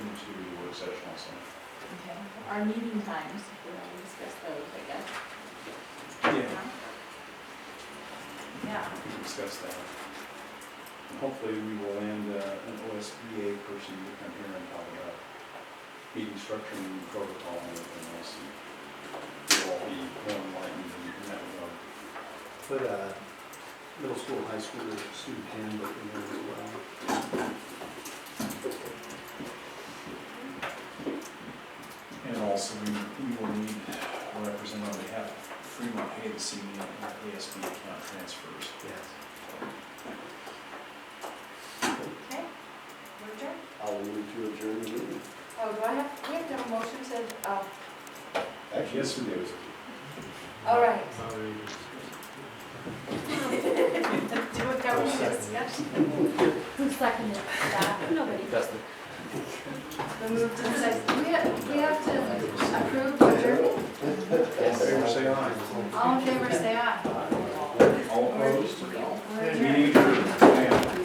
our meeting times, if we want to discuss those, I guess. Yeah, Yeah, we can discuss that. And Hopefully, we will land uh, an OSBA person to come here and talk about meeting structure and protocol and everything else. and We'll all be more enlightened in that regard. Put a uh, middle school, high school student handbook in there as well. And also, we, we will need a representative on behalf of Fremont Hay this evening on ASB account transfers. Yes. okay. We're adjourned. I'll move to adjourn the meeting. Oh, do I have, we have to have a motion to, uh, Actually, yes, we do. all right. Already Do a government discussion. Who seconded that? Nobody. The move to discuss, we have, we have to approve adjournment. All in favor, say aye. All in favor, say aye. All opposed? We're Meeting adjourned.